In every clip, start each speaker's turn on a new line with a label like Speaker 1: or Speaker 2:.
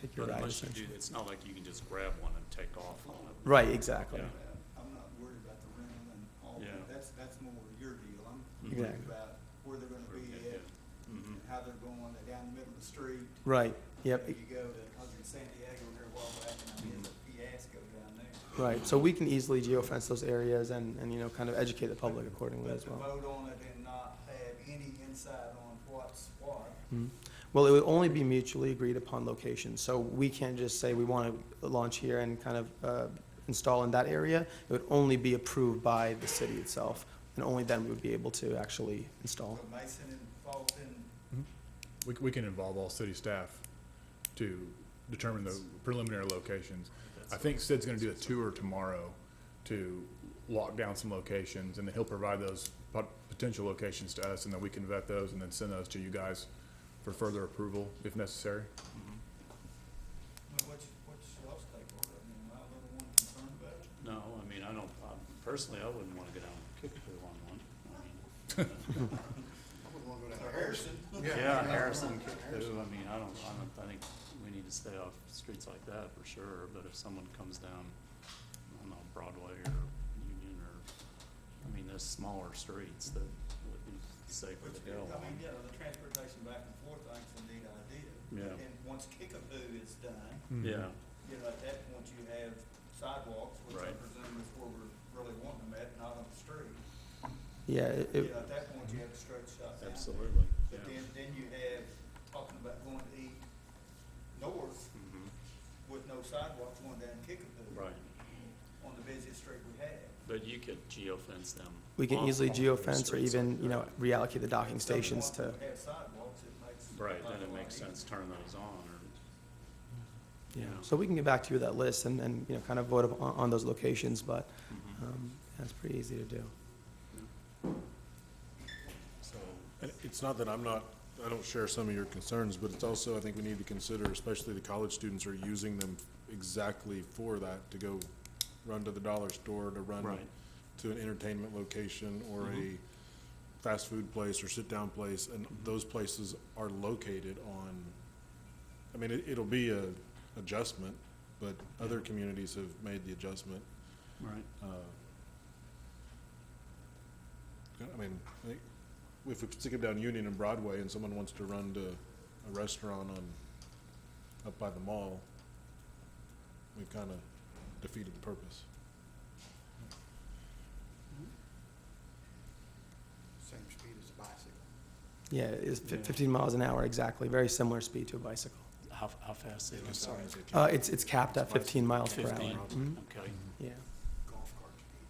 Speaker 1: take your
Speaker 2: But
Speaker 1: ride
Speaker 2: unless you do,
Speaker 1: essentially.
Speaker 2: it's not like you can just grab one and take off on it.
Speaker 1: Right, exactly.
Speaker 2: Yeah.
Speaker 3: uh, I'm not worried about the rental and all
Speaker 2: Yeah.
Speaker 3: that, that's, that's more your deal, I'm
Speaker 2: Mhm.
Speaker 3: worried
Speaker 1: Mm-hmm. Exactly.
Speaker 3: about where they're gonna be
Speaker 2: Yeah.
Speaker 3: at, Mm-hmm.
Speaker 2: Mhm.
Speaker 3: and how they're going, they're down the middle of the street.
Speaker 1: Right, yep,
Speaker 3: You know, You go to, I was in San Diego here a while back, and I mean, it's a fiasco down there.
Speaker 1: right. So we can easily geofence those areas and, and, you know, kind of educate the public accordingly
Speaker 3: But
Speaker 1: as
Speaker 3: to
Speaker 1: well.
Speaker 3: vote on it and not have any insight on what's what,
Speaker 1: Mhm. Well, it would only be mutually agreed upon locations, so we can't just say we want to launch here and kind of uh, install in that area. It would only be approved by the city itself, and only then we would be able to actually install.
Speaker 3: But Mason and Fulton,
Speaker 4: We, c- we can involve all city staff to determine the preliminary locations. I think Sid's gonna do a tour tomorrow to lock down some locations, and then he'll provide those pot- potential locations to us, and then we can vet those and then send those to you guys for further approval if necessary.
Speaker 3: what, what you- what y'all's take on it, I mean, am I the only one concerned about it?
Speaker 2: No, I mean, I don't, I- personally, I wouldn't want to go down Kickapoo on one. I mean,
Speaker 3: Harrison.
Speaker 2: Yeah, Harrison, Kickapoo, I mean, I don't, I don't, I think we need to stay off streets like that for sure, but if someone comes down, I don't know, Broadway or Union or, I mean, those smaller streets that would be safer
Speaker 3: Which,
Speaker 2: to
Speaker 3: I
Speaker 2: go
Speaker 3: mean,
Speaker 2: on.
Speaker 3: yeah, the transportation back and forth, I think's a neat idea.
Speaker 2: Yeah.
Speaker 3: And once Kickapoo is done,
Speaker 2: Yeah,
Speaker 3: you know, at that point you have sidewalks, which I
Speaker 2: Right.
Speaker 3: presume is where we're really wanting them at, not on the street.
Speaker 1: Yeah, it-
Speaker 3: You
Speaker 1: it,
Speaker 3: know, at that point you have a straight shot down.
Speaker 2: absolutely, yeah.
Speaker 3: But then, then you have, talking about going to eat north
Speaker 2: Mhm,
Speaker 3: with no sidewalks going down Kickapoo.
Speaker 2: Right,
Speaker 3: On the busiest street we have.
Speaker 2: but you could geofence them.
Speaker 1: we can
Speaker 2: off
Speaker 1: easily
Speaker 2: all those
Speaker 1: geofence or
Speaker 2: streets
Speaker 1: even,
Speaker 2: like
Speaker 1: you know,
Speaker 2: that.
Speaker 1: reallocate the docking
Speaker 3: If someone
Speaker 1: stations to,
Speaker 3: would Have sidewalks, it makes.
Speaker 2: Right,
Speaker 3: life
Speaker 2: then
Speaker 3: a
Speaker 2: it
Speaker 3: lot
Speaker 2: makes
Speaker 3: easier.
Speaker 2: sense, to turn those on, or,
Speaker 1: yeah.
Speaker 2: you know.
Speaker 1: So we can get back to you with that list and, and, you know, kind of vote up on, on those locations, but
Speaker 2: Mhm.
Speaker 1: um, that's pretty easy to do.
Speaker 2: so,
Speaker 5: And It's not that I'm not, I don't share some of your concerns, but it's also, I think we need to consider, especially the college students are using them exactly for that, to go run to the dollar store, to run
Speaker 2: Right.
Speaker 5: to an entertainment location or
Speaker 2: Mhm.
Speaker 5: a fast food place or sit-down place, and those places are located on, I mean, it, it'll be a adjustment, but other communities have made the adjustment.
Speaker 2: right,
Speaker 5: Uh, I mean, I think if we stick it down Union and Broadway and someone wants to run to a restaurant on, up by the mall, we've kind of defeated the purpose.
Speaker 6: same speed as a bicycle.
Speaker 1: Yeah, it's fif-
Speaker 2: Yeah.
Speaker 1: 15 miles an hour, exactly, very similar speed to a bicycle.
Speaker 2: how, how fast is it? Sorry.
Speaker 1: Uh, it's, it's capped at
Speaker 5: It's bicycle.
Speaker 1: 15 miles per hour.
Speaker 2: Fifteen,
Speaker 1: Mhm.
Speaker 2: okay.
Speaker 1: Yeah,
Speaker 6: Golf cart speed.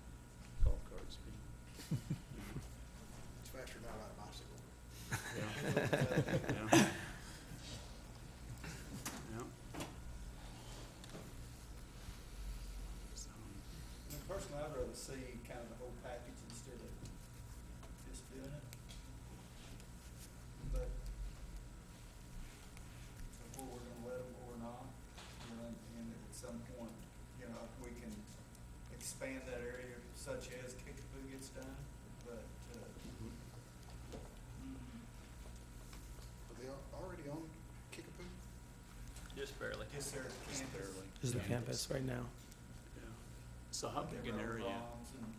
Speaker 2: Golf cart speed.
Speaker 6: It's faster now on a bicycle.
Speaker 2: Yeah. Yeah. Yeah. So,
Speaker 3: I mean, Personally, I'd rather see kind of the whole package instead of just doing it. But where we're gonna let them or not, you know, and at some point, you know, if we can expand that area such as Kickapoo gets done, but, uh,
Speaker 6: Are they al- already on Kickapoo?
Speaker 7: Just barely.
Speaker 3: just there at
Speaker 2: Just
Speaker 3: campus.
Speaker 2: barely,
Speaker 1: this is the
Speaker 4: Yeah.
Speaker 1: campus right now.
Speaker 2: yeah. So how
Speaker 3: their
Speaker 2: big an
Speaker 3: own
Speaker 2: area?
Speaker 3: lawns and do that,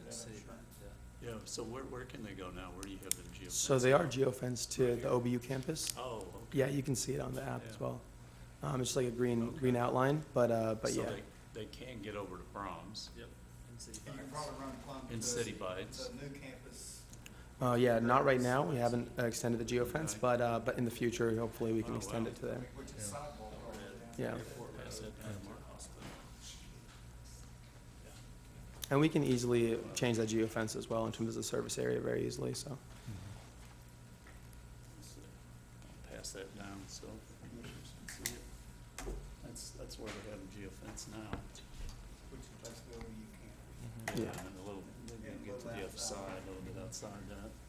Speaker 3: I'm
Speaker 7: Let's see.
Speaker 3: sure.
Speaker 2: Yeah, so where, where can they go now? Where do you have them geofenced?
Speaker 1: So they are geofenced to the OBU campus.
Speaker 2: Oh, okay.
Speaker 1: Yeah, you can see it on the app as
Speaker 2: Yeah.
Speaker 1: well. Um, It's just like a green,
Speaker 2: Okay.
Speaker 1: green outline, but, uh, but yeah.
Speaker 2: So they, they can get over to Brahms.
Speaker 7: Yep. In city
Speaker 3: And you can
Speaker 7: parks.
Speaker 3: probably run plumb.
Speaker 2: In
Speaker 3: to
Speaker 2: city
Speaker 3: the-
Speaker 2: bites.
Speaker 3: The new campus
Speaker 1: Uh, yeah, not right now, we haven't uh, extended the geofence,
Speaker 2: Okay.
Speaker 1: but, uh, but in the future, hopefully we can
Speaker 2: Oh,
Speaker 1: extend
Speaker 2: wow.
Speaker 1: it to there.
Speaker 3: Which is sidewalk road down
Speaker 1: Yeah.
Speaker 3: there.
Speaker 2: Airport has it, Adamar Hospital.
Speaker 1: And we can easily change that geofence as well in terms of the service area very easily, so.
Speaker 2: So, I'll Pass that down, so. commissioners can see it. That's, that's where they have the geofence now.
Speaker 3: Which is basically over you can't.
Speaker 1: Yeah.
Speaker 2: Mm-hmm. And a little, maybe you get to the other side, a little bit outside that.